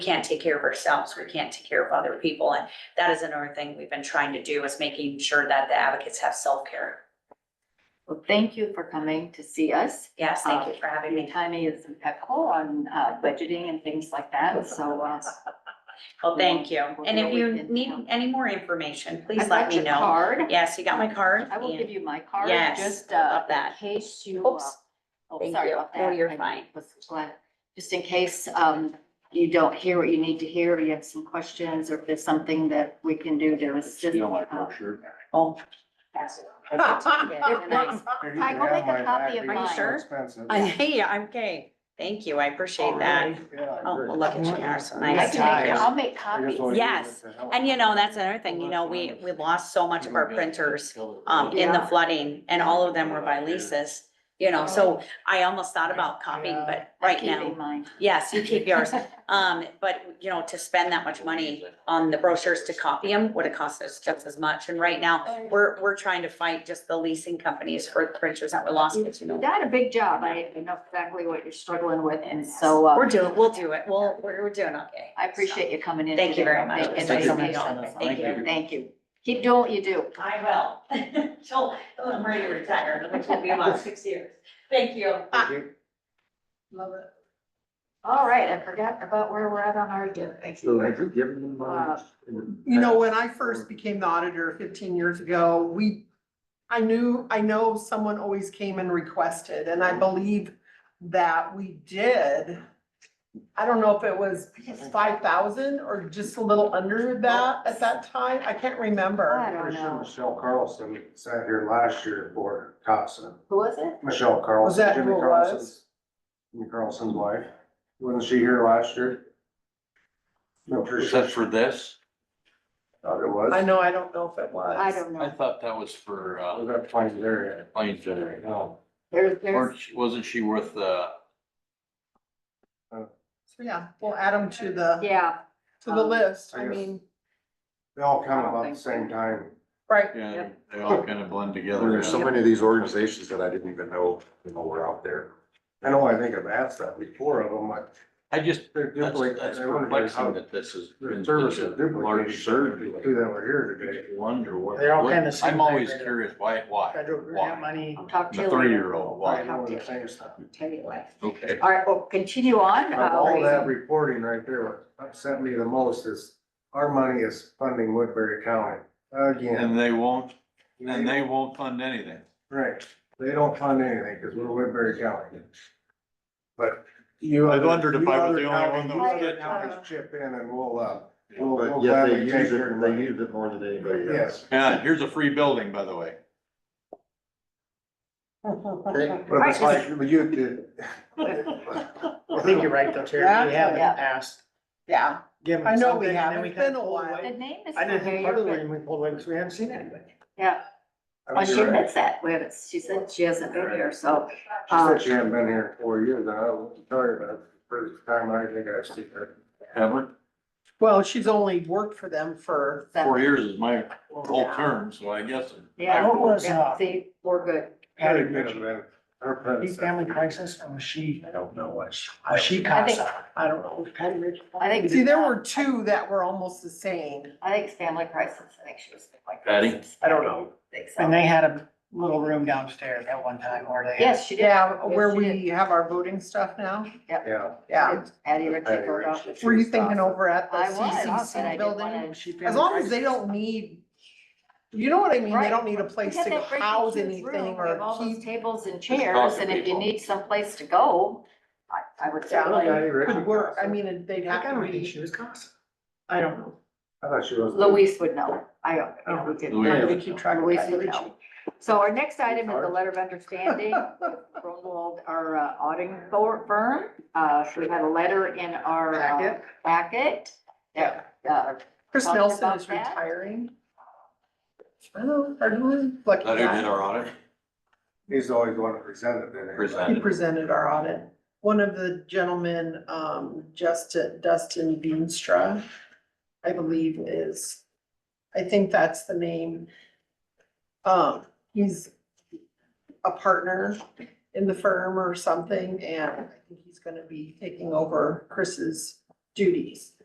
can't take care of ourselves, we can't take care of other people, and that is another thing we've been trying to do is making sure that the advocates have self-care. Well, thank you for coming to see us. Yes, thank you for having Your me. timing is impeccable on uh, budgeting and things like that, so. uh, Well, thank you. We'll And do if what we you can need help. any more information, please I've let got me your know. Card. Yes, you got my card? I will And- give you my card, Yes, just I uh, love in that. case you. uh, Oops. Oh, Thank sorry you. about No, that. you're I fine. was glad- Just in case um, you don't hear what you need to hear, or you have some questions, or if there's something that we can do to assist. You don't like uh, her shirt? Oh, they're nice. I will make a copy of Are you mine. sure? I- hey, I'm okay. Thank you, I appreciate that. Oh, well, look at you, you're so I nice. can Thank make, you. I'll make copies. Yes. And you know, that's another thing, you know, we, we lost so much of our printers, um, in the Yeah. flooding, and all of them were by leases. You know, so I almost thought about copying, but right Keep now. in mind. Yes, you keep yours. Um, but you know, to spend that much money on the brochures to copy them would have cost us just as much. And right now, we're, we're trying to fight just the leasing companies for the printers that were lost, but you know. Not a big job. I know exactly what you're struggling with and so uh, We're doing, we'll do it. We'll, we're, we're doing okay. I appreciate you coming in. Thank you very today. much. Thank you. Thank you. Thank you. Thank you. Keep doing what you do. I will. Till, till I'm ready to retire, which will be about six years. Thank you. Uh, Love it. All right, I forgot about where we're at on our agenda. So have you given them uh, mine? You know, when I first became the auditor fifteen years ago, we, I knew, I know someone always came and requested, and Mm-hmm. I believe that we did. I don't know if it was five thousand or just a little under that at that time. I can't remember. I don't know. Michelle Carlson sat here last year for Thompson. Who was it? Michelle Was Carlson, that Jimmy who it Carlson's, was? Jimmy Carlson's wife. Wasn't she here last year? No, for Is sure. that for this? Thought it I was. know, I don't know if it was. I don't I know. thought that was for, I uh, was up playing there. planes generator. No. There's, there's, Weren't she- wasn't she worth, uh, So, yeah, we'll add them to the, yeah, to the Um, list. I I guess- mean, They all I come don't about think the so. same time. right, yeah, Yep. they all kind of blend together. Oh. There's so yeah. many of these organizations that I didn't even know, you know, were out there. I know, I think I've asked that before of them, like, I just, they're that's, duplicating. that's I wonder how- perplexing that this has The been such service a of duplicating large surge. services too that were here today. Wonder what. They're all what- kinda same I'm always thing, right? curious, why, why, federal grant why? money. I'll talk to The you later. three-year-old, I why? know the same stuff. Tell you later. Okay. All right, well, continue on. Of Uh, all that reporting right there, what upset me the most is our money is funding Woodbury County again. And they won't, and they won't fund anything. Right, they don't fund anything because we're Woodbury County. But you. I other- wondered if you I was other the only counties- one that you was other getting it. counties Chip in and we'll, uh, we'll. we'll But yet gladly they use take your it, they money. use it more than anybody else. Yes. Yeah, here's a free building, by the way. They- But it's like, you did. I think you're right though, Terry, we have in the Yeah. past, yeah. given I them know we something and have. then we It's kinda been a pulled while. The away. name is I didn't think part of the familiar. reason we pulled away because we haven't seen anybody. Yeah, I well, mean, Oh, she you're right. admits that. We haven't, she said she hasn't been here, so. She uh, said she hadn't been here in four years. and I will tell you about it. First time I think I've seen her. Haven't, Well, she's only worked for them for four years is my whole Yeah. term, so I guess. Yeah. What was, Yeah, uh, see, we're good. Patty Could have Mitchell, been her Deep predecessor. family crisis, or was she, I don't know what she. was she I think- CASA? I don't know, was Patty Mitchell? I think- See, there were two that were almost the same. I think it's family crisis. I think she was like. Patty? I don't know. Think And so. they had a little room downstairs at one time, or they. Yes, she did. Yeah, where Yes, she did. we have our voting stuff now, Yeah. yeah. Addie Ritchie wrote off. Were you thinking over at the I was, but I CCC didn't building? wanna- And she As family long as they crisis. don't need, you know what I mean, they Right. don't need a place We had to that great house huge anything room, we have or All those keep. tables and talk chairs, to and if you people. need someplace to go, I, I would Yeah, certainly. Could work, I mean, they'd I have kind to of think be, she was CASA. I don't know, I thought she was. Luis would know. I, you Oh, know, we Louise. I did. would keep track of Luis that. would know. So our next item is the letter of understanding with Grunwald, our uh, auditing for- firm. Uh, so we had a letter in our uh, Packet. packet. that, uh, Chris Talked Nelson about is that. retiring. I know, I really, like, That who did our audit? He's always the one that presented it. Presented. he presented our audit. One of the gentlemen, um, Justin, Dustin Beanstra, I believe is, I think that's the name. Um, he's a partner in the firm or something, and I think he's gonna be taking over Chris's duties.